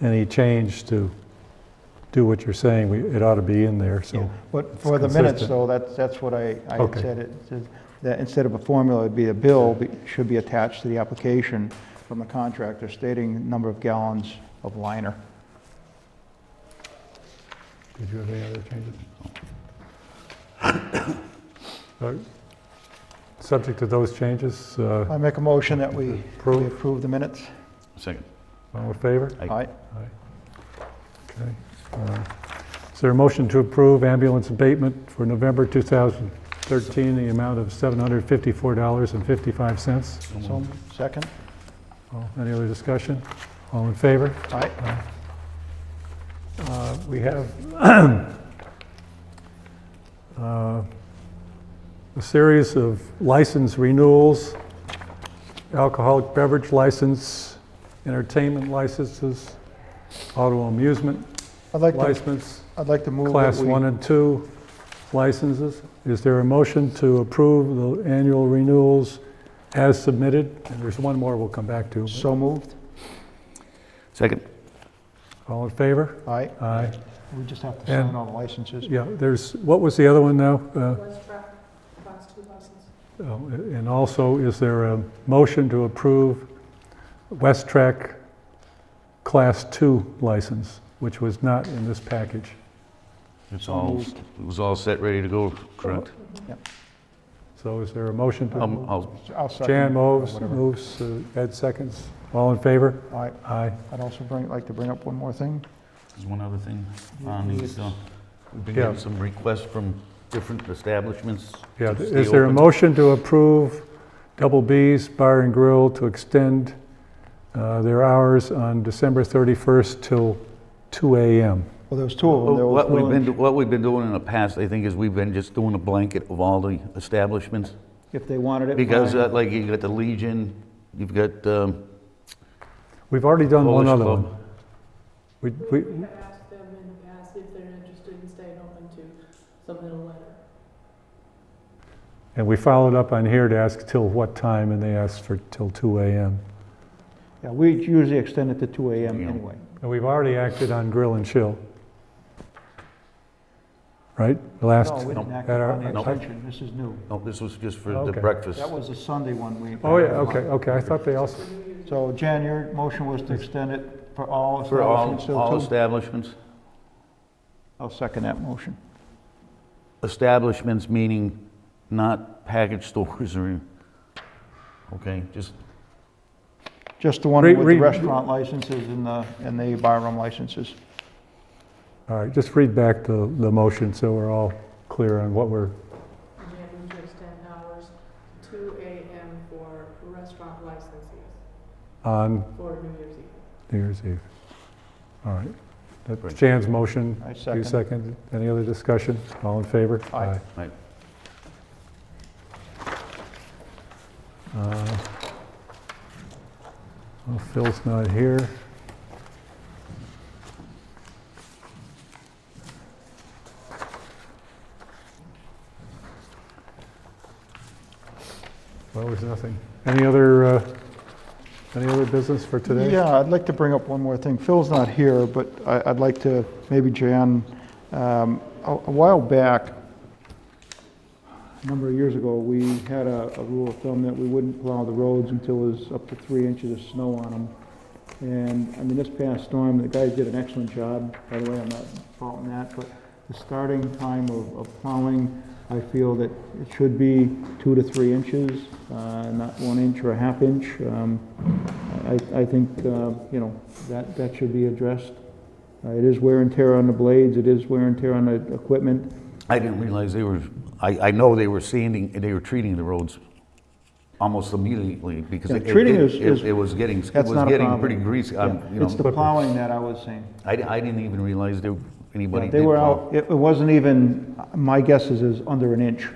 any change to do what you're saying, we- it ought to be in there, Yeah, so. But it's for the minutes, consistent. though, that's, that's what I, I had Okay. said, it says that instead of a formula, it'd be a bill, be- should be attached to the application from the contractor stating number of gallons of liner. Did you have any other changes? Uh, Subject to those changes, uh, I make a motion that we we approve, approve the minutes. Second. all in favor? Aye. Aye. Okay. Uh, Is there a motion to approve ambulance abatement for November 2013, the amount of $754.55? So, second? All- Any other discussion? All in favor? Aye. Uh, We have uh, a series of license renewals, alcoholic beverage license, entertainment licenses, auto amusement I'd like to, license, I'd like to move that class we- one and two licenses. Is there a motion to approve the annual renewals as submitted? And there's one more we'll come back to. So moved? Second. All in favor? Aye. Aye. We just have to And- sign all the licenses. Yeah, there's, what was the other one now? Uh, West truck, class two license. Oh, And also, is there a motion to approve West Track Class 2 license, which was not in this package? It's all, it was all set, ready to go, correct? So is there a motion to? Um, I'll- I'll second. Jan or moves, whatever. moves, uh, Ed seconds. All in favor? Aye. Aye. I'd also bring, like to bring up one more thing. There's one other thing on these, uh, we've been Yeah. getting some requests from different establishments. to Yeah, stay is there a open. motion to approve Double B's Bar and Grill to extend uh, their hours on December 31st till 2 AM? Well, there was two of them. There was What we've Will been, and- do- what we've been doing in the past, I think, is we've been just doing a blanket of all the establishments. If they wanted it. Because fine. uh, like you got the Legion, you've got um, We've already done one Polish other Club. one. We- We we- have asked them in the past if they're interested in staying open to some little letter. And we followed up on here to ask till what time, and they asked for till 2 AM. Yeah, we usually extend it to 2 AM Yeah. anyway. And we've already acted on grill and chill. Right? The Last, No, we didn't act at our- upon the Nope. extension, this is new. No, this was just for the Okay. breakfast. That was the Sunday one we. oh, yeah, okay, okay, I thought they also, So Jan, your motion was to extend it for all For all, establishments all till 2? establishments? I'll second that motion. Establishments meaning not package stores or, okay, just, Just the one Read- with the read- restaurant licenses and the, and the bar room licenses. all right, just read back the, the motion so we're all clear on what we're, And they have to extend hours two AM for restaurant licensees on for New Year's Eve. New Year's Eve. All right. That's Great. Jan's motion. I You second. second. Any other discussion? All in favor? Aye. like, Uh, Well, Phil's not here. Well, there's nothing. Any other, uh, any other business for today? Yeah, I'd like to bring up one more thing. Phil's not here, but I, I'd like to, maybe Jan, um, a, a while back, a number of years ago, we had a, a rule of thumb that we wouldn't plow the roads until there's up to three inches of snow on them. And, I mean, this past storm, the guys did an excellent job, by the way, I'm not faulting that, but the starting time of, of plowing, I feel that it should be two to three inches, uh, not one inch or a half inch. Um, I, I think, uh, you know, that, that should be addressed. Uh, It is wear and tear on the blades, it is wear and tear on the equipment. I didn't realize they were, I, I know they were sanding, they were treating the roads almost immediately because Yeah, it, treating it, is- it- is- it was getting, it That's was not a getting problem. pretty greasy. um, Yeah, you It's the know, plowing that I was saying. I, I didn't even realize there, anybody Yeah, did. They were plow. out, it it wasn't even, my guess is, is under an inch,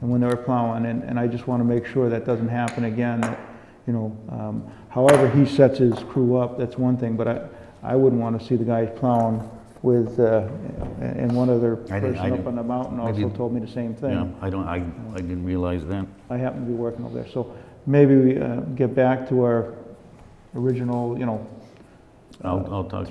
and when they were plowing, and, and I just want to make sure that doesn't happen again, that, you know, um, however he sets his crew up, that's one thing, but I, I wouldn't want to see the guys plowing with, uh, and and one other I person didn't- I up didn't- on the mountain also maybe- told me the same Yeah, thing. I don't, I, I didn't realize that. I happen to be working over there, so maybe we uh, get back to our original, you know, I'll, I'll talk